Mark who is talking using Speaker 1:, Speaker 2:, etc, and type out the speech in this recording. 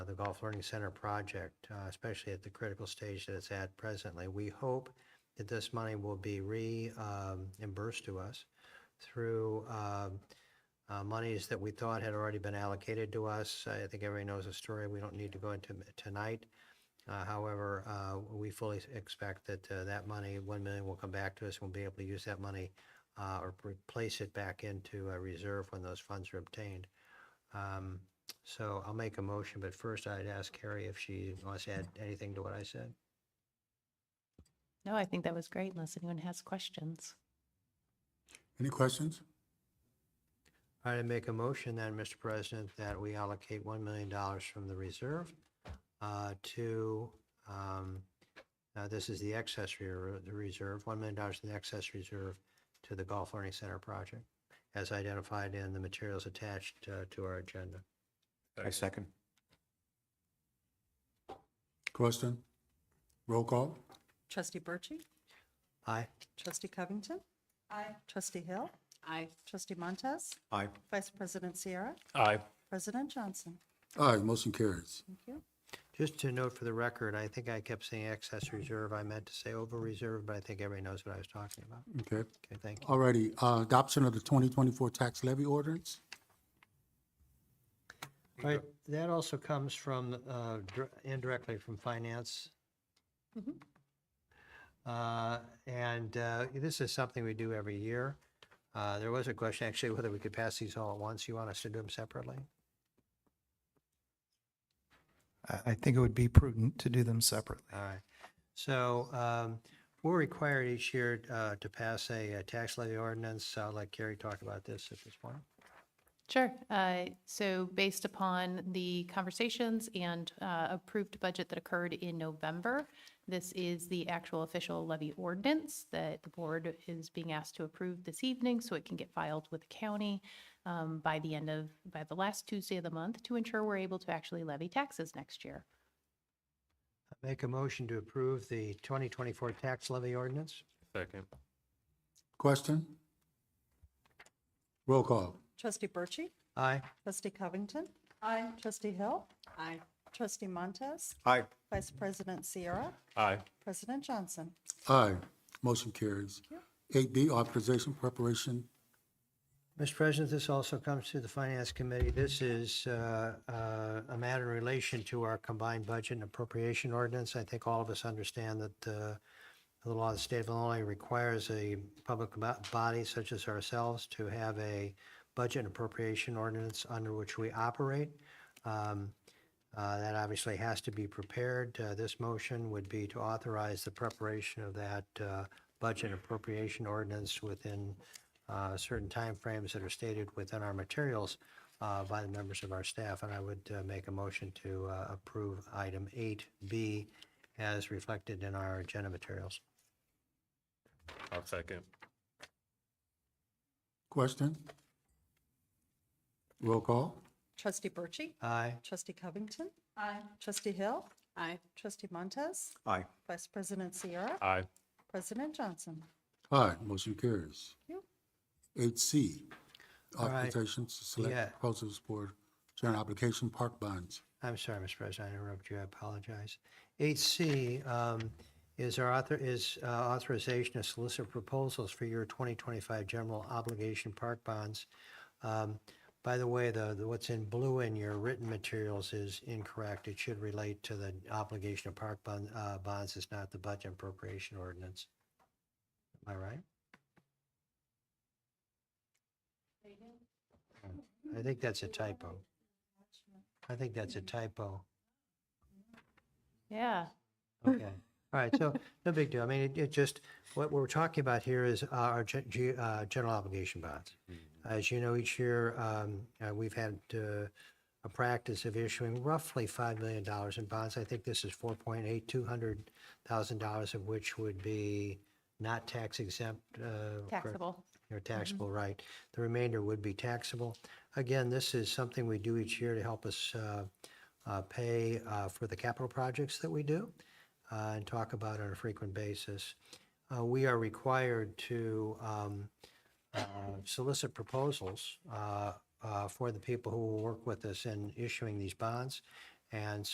Speaker 1: Golf uh, Learning Center project, uh, especially at the critical stage that it's at presently. We hope that this money will be um, reimbursed to us through um, uh, monies that we thought had already been allocated to us. I think everybody knows the story. We don't need to go into it tonight. Uh, However, uh, we fully expect that uh, that money, 1 million, will come back to us. and We'll be able to use that money uh, or replace it back into a reserve when those funds are obtained. Um, So I'll make a motion, but first I'd ask Carrie if she wants to add anything to what I said.
Speaker 2: No, I think that was great unless anyone has questions.
Speaker 3: Any questions?
Speaker 1: I'd make a motion then, Mr. President, that we allocate $1 million from the reserve uh, to, um, uh, this is the excess re- the reserve, $1 million in the excess reserve to the Golf Learning Center project, as identified in the materials attached uh, to our agenda.
Speaker 4: I second.
Speaker 3: Question? Roll call?
Speaker 5: Trustee Birchey.
Speaker 1: Aye.
Speaker 5: Trustee Covington. Aye. Trustee Hill. Aye. Trustee Montez.
Speaker 4: Aye.
Speaker 5: Vice President Sierra.
Speaker 4: Aye.
Speaker 5: President Johnson.
Speaker 3: Aye, motion carries.
Speaker 5: Thank you.
Speaker 1: Just to note for the record, I think I kept saying excess reserve. I meant to say over reserve, but I think everybody knows what I was talking about.
Speaker 3: Okay.
Speaker 1: Okay, thank you.
Speaker 3: All righty, uh, adoption of the 2024 tax levy ordinance?
Speaker 1: All right, that also comes from, uh, dir- indirectly from finance. Uh, And uh, this is something we do every year. Uh, There was a question actually whether we could pass these all at once. You want us to do them separately?
Speaker 6: I, I think it would be prudent to do them separately.
Speaker 1: All right. So um, we're required each year uh, to pass a uh, tax levy ordinance. I'll let Carrie talk about this at this point.
Speaker 2: Sure. Uh, So based upon the conversations and uh, approved budget that occurred in November, this is the actual official levy ordinance that the board is being asked to approve this evening so it can get filed with the county um, by the end of, by the last Tuesday of the month to ensure we're able to actually levy taxes next year.
Speaker 1: Make a motion to approve the 2024 tax levy ordinance.
Speaker 4: Second.
Speaker 3: Question? Roll call?
Speaker 5: Trustee Birchey.
Speaker 1: Aye.
Speaker 5: Trustee Covington. Aye. Trustee Hill. Aye. Trustee Montez.
Speaker 4: Aye.
Speaker 5: Vice President Sierra.
Speaker 4: Aye.
Speaker 5: President Johnson.
Speaker 3: Aye, motion carries. 8B, authorization preparation.
Speaker 1: Mr. President, this also comes to the Finance Committee. This is uh, uh, a matter in relation to our combined budget and appropriation ordinance. I think all of us understand that uh, the law of the state of Illinois requires a public bo- body such as ourselves to have a budget and appropriation ordinance under which we operate. Um, uh, That obviously has to be prepared. Uh, This motion would be to authorize the preparation of that uh, budget and appropriation ordinance within uh, certain timeframes that are stated within our materials uh, by the members of our staff. And I would uh, make a motion to uh, approve item 8B as reflected in our agenda materials.
Speaker 4: I'll second.
Speaker 3: Question? Roll call?
Speaker 5: Trustee Birchey.
Speaker 1: Aye.
Speaker 5: Trustee Covington. Aye. Trustee Hill. Aye. Trustee Montez.
Speaker 4: Aye.
Speaker 5: Vice President Sierra.
Speaker 4: Aye.
Speaker 5: President Johnson.
Speaker 3: Aye, motion carries.
Speaker 5: Thank
Speaker 3: 8C,
Speaker 1: All right.
Speaker 3: authorization to
Speaker 1: Yeah.
Speaker 3: select proposals for general application park bonds.
Speaker 1: I'm sorry, Mr. President, I interrupted you, I apologize. 8C um, is our author, is uh, authorization to solicit proposals for your 2025 general obligation park bonds. Um, By the way, the, the- what's in blue in your written materials is incorrect. It should relate to the obligation of park bond, uh, bonds, it's not the budget appropriation ordinance. Am I right? I think that's a typo. I think that's a typo.
Speaker 2: Yeah.
Speaker 1: Okay, all right, so, no big deal. I mean, it, it just, what we're talking about here is our gen- ge- uh, general obligation bonds. As you know, each year, um, uh, we've had, uh, a practice of issuing roughly five million dollars in bonds. I think this is four point eight, two hundred thousand dollars of which would be not tax exempt, uh. correct?
Speaker 2: Taxable.
Speaker 1: your taxable right. The remainder would be taxable. Again, this is something we do each year to help us uh, uh, pay uh, for the capital projects that we do uh, and talk about on a frequent basis. Uh, We are required to um, uh, solicit proposals uh, uh, for the people who will work with us in issuing these bonds. And so